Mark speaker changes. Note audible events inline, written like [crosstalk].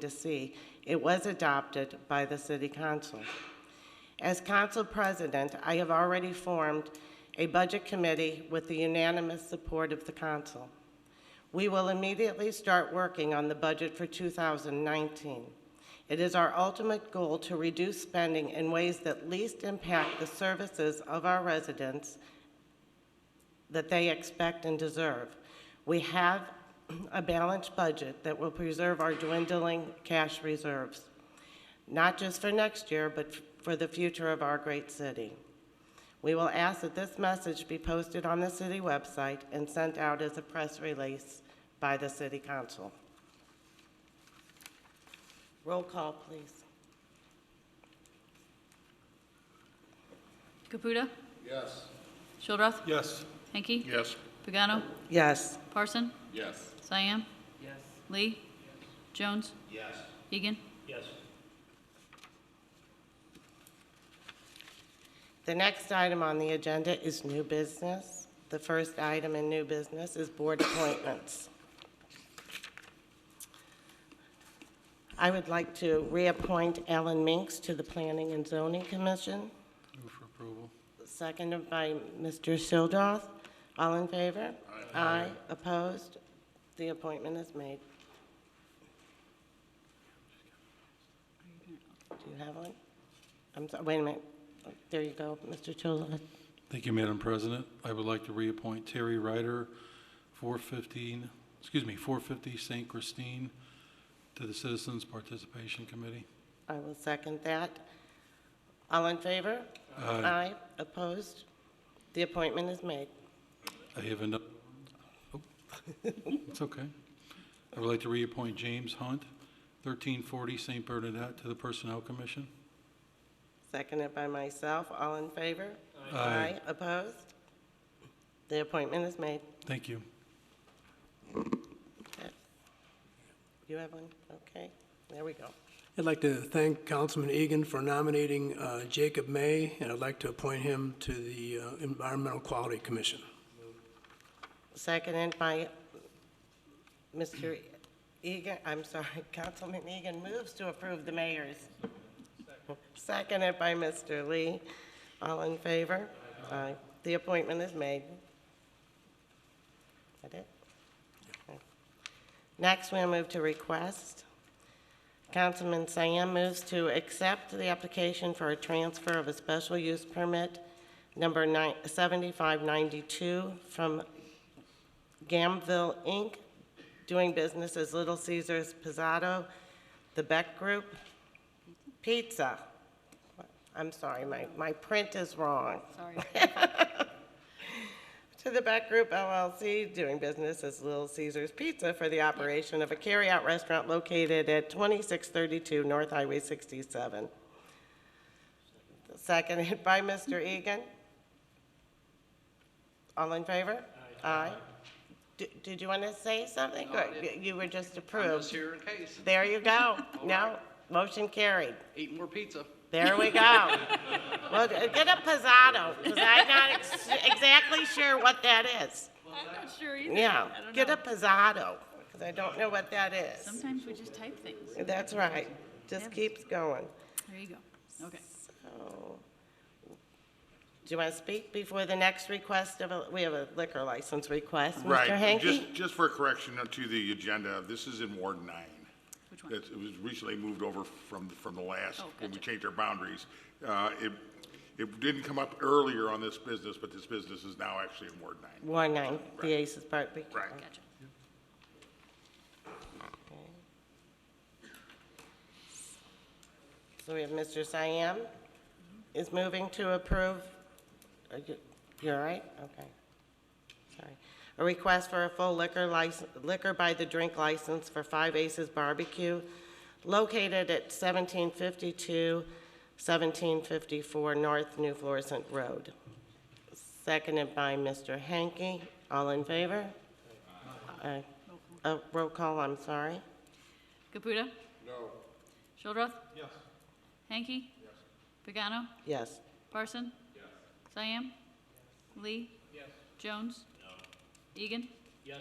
Speaker 1: to see, it was adopted by the city council. As council president, I have already formed a budget committee with the unanimous support of the council. We will immediately start working on the budget for 2019. It is our ultimate goal to reduce spending in ways that least impact the services of our residents that they expect and deserve. We have a balanced budget that will preserve our dwindling cash reserves, not just for next year, but f- for the future of our great city. We will ask that this message be posted on the city website and sent out as a press release by the city council. Roll call, please.
Speaker 2: Caputa.
Speaker 3: Yes.
Speaker 2: Shildroth.
Speaker 3: Yes.
Speaker 2: Hanky.
Speaker 3: Yes.
Speaker 2: Pagano.
Speaker 1: Yes.
Speaker 2: Parson.
Speaker 3: Yes.
Speaker 2: Cyan. Lee. Jones.
Speaker 3: Yes.
Speaker 2: Egan.
Speaker 3: Yes.
Speaker 1: The next item on the agenda is new business. The first item in new business is board appointments. I would like to reappoint Alan Minks to the Planning and Zoning Commission,
Speaker 3: Move for approval.
Speaker 1: seconded by Mr. Shildroth. All in favor? Aye. Opposed? The appointment is made. Do you have one? I'm sorry, wait a minute. There you go, Mr. Shildroth.
Speaker 4: Thank you, Madam President. I would like to reappoint Terry Ryder, 415, excuse me, 450 St. Christine, to the Citizens Participation Committee.
Speaker 1: I will second that. All in favor?
Speaker 4: Aye.
Speaker 1: Opposed? The appointment is made.
Speaker 4: I have another, [laughs] it's okay. I would like to reappoint James Hunt, 1340 St. Bernadette, to the Personnel Commission.
Speaker 1: Seconded by myself. All in favor?
Speaker 4: Aye.
Speaker 1: Opposed? The appointment is made.
Speaker 4: Thank you.
Speaker 1: You have one? Okay, there we go.
Speaker 5: I'd like to thank Councilman Egan for nominating uh, Jacob May, and I'd like to appoint him to the uh, Environmental Quality Commission.
Speaker 1: Seconded by Mr. Egan, I'm sorry, [laughs] Councilman Egan moves to approve the mayor's. Seconded by Mr. Lee. All in favor? Aye. The appointment is made. That it? Next, we'll move to request. Councilman Sam moves to accept the application for a transfer of a special use permit number nine- 7592 from Gamville Inc., doing business as Little Caesar's Pizzato, The Beck Group, Pizza. I'm sorry, my, my print is wrong.
Speaker 2: [laughs] Sorry.
Speaker 1: To the Beck Group LLC, doing business as Little Caesar's Pizza for the operation of a carryout restaurant located at 2632 North Highway 67. Seconded by Mr. Egan. All in favor? Aye. D- Did you want to say something? or You were just
Speaker 6: I'm just
Speaker 1: approved.
Speaker 6: here in case.
Speaker 1: There you go.
Speaker 6: [laughs] All
Speaker 1: No, motion carried.
Speaker 6: Eat more pizza.
Speaker 1: There we go. Well, get a pizzano, because I'm not ex- exactly sure what that is.
Speaker 2: I'm not sure either.
Speaker 1: Yeah,
Speaker 2: I don't
Speaker 1: get a
Speaker 2: know.
Speaker 1: pizzano, because I don't know what that is.
Speaker 2: Sometimes we just type things.
Speaker 1: That's right, just
Speaker 2: Yep.
Speaker 1: keeps going.
Speaker 2: There you go. Okay.
Speaker 1: So, Do you want to speak before the next request of, a we have a liquor license request, Mr.
Speaker 7: Right, and
Speaker 1: Hanky?
Speaker 7: just, just for correction to the agenda, this is in Ward nine.
Speaker 2: Which one?
Speaker 7: That's- It was recently moved over from, from the last,
Speaker 2: Oh,
Speaker 7: when we
Speaker 2: gotcha.
Speaker 7: changed our boundaries. Uh, It, it didn't come up earlier on this business, but this business is now actually in Ward nine.
Speaker 1: Ward nine, the Aces Barbecue.
Speaker 7: Right.
Speaker 2: Gotcha.
Speaker 1: So we have Mr. Siam is moving to approve. Are you, you all right? Okay. Sorry. A request for a full liquor license, liquor by the drink license for Five Aces Barbecue located at 1752, 1754 North New Florissant Road. Seconded by Mr. Hanky. All in favor? Aye. Oh, roll call, I'm sorry.
Speaker 2: Caputa.
Speaker 3: No.
Speaker 2: Shildroth.
Speaker 3: Yes.
Speaker 2: Hanky. Pagano.
Speaker 1: Yes.
Speaker 2: Parson. Cyan. Lee. Jones. Egan.
Speaker 3: Yes.